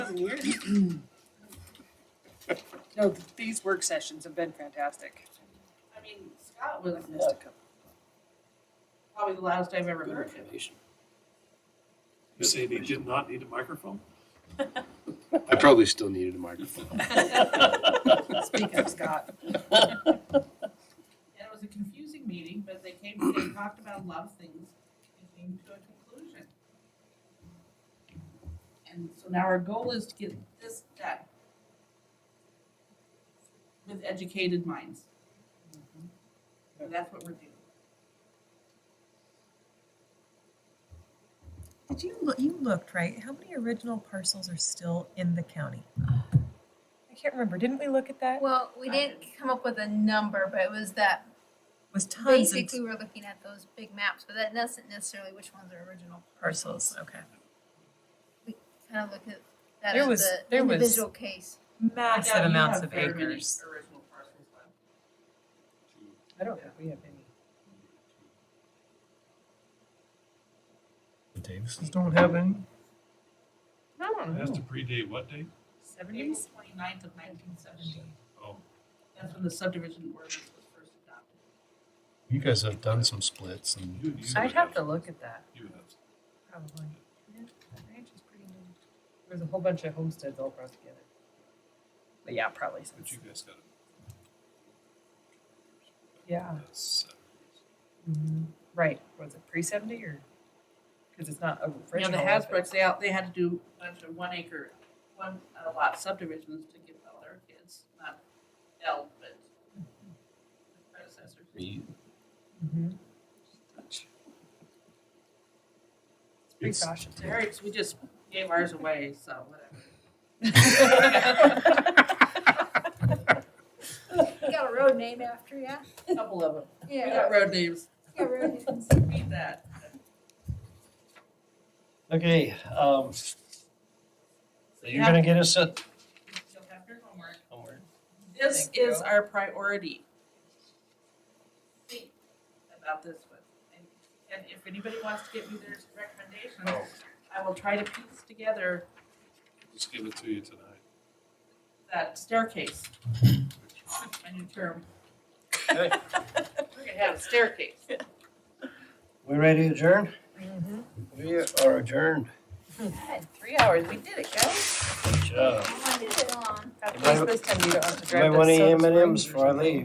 thousand years. No, these work sessions have been fantastic. I mean, Scott was probably the loudest I've ever Good heard him. information. You say they did not need a microphone? I probably still needed a microphone. Speak up, Scott. And it was a confusing meeting, but they came, they talked about a lot of things and came to a conclusion. And so now our goal is to get this done with educated minds. So that's what we're doing. Did you loo- you looked right? How many original parcels are still in the county? I can't remember. Didn't we look at that? Well, we didn't come up with a number, but it was that was tons basically of we were looking at those big maps, but that doesn't necessarily which ones are original. parcels. Okay. Kind of look at that There as was- the there was- individual case. Now, Massive you amounts have of very many acres. Original parcels left. I don't think we have any. The Davises don't have any? I don't It has to predate what date? April Seventies? 29th of nineteen seventy. Oh, That's when the subdivision ordinance was first adopted. You guys have done some splits and. you, you. would I'd have to look at that, You would have. to. probably. There's a whole bunch of homesteads all across together. But yeah, probably. But you guys gotta. Yeah. mm-hmm. That's, uh, Right, was it pre-seventy or? Cause it's not You know, original. the Hasbroucks, they out, they had to do a bunch of one acre, one uh, lot subdivisions to give all their kids, not Dell, but the predecessors. You- It's, Precaution. To hers, we just gave ours away, so whatever. You got a road name after you? A Couple of them. We Yeah. got road names, Yeah, road names. beat that. Okay, um, so So you you're have- gonna get us a, You'll have your homework. somewhere. This Thank is you. our priority. Think about this one. And- And if anybody wants to give me their recommendations, I will try to piece together just give it to you tonight. that staircase. My new term. We're Hey. gonna have a staircase. we ready to adjourn? Mhm. We are adjourned. Three hours, we did it, guys. Good job. I wanted it on. At least this time you don't have to Do I drive that want any soda M and springs M's or before I something. leave?